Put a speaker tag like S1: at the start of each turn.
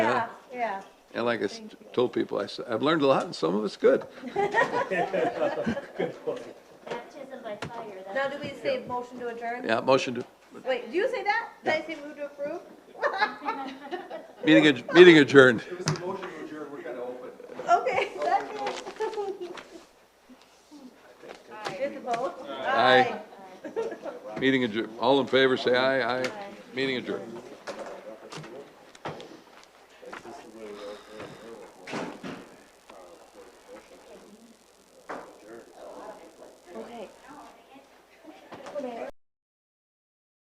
S1: Yeah,
S2: And like I s- told people, I said, I've learned a lot and some of it's good.
S3: Baptism by fire,
S1: now
S3: that's
S1: do we say motion to adjourn?
S2: Yeah, motion to,
S1: Wait, did you say that? Did I say move to approve?
S2: meeting, adj- meeting adjourned.
S4: It was the motion to adjourn, we're kind of open.
S1: Okay, second. Here's the vote.
S2: Aye. Meeting adjourned. All in favor, say aye. Aye. Meeting adjourned.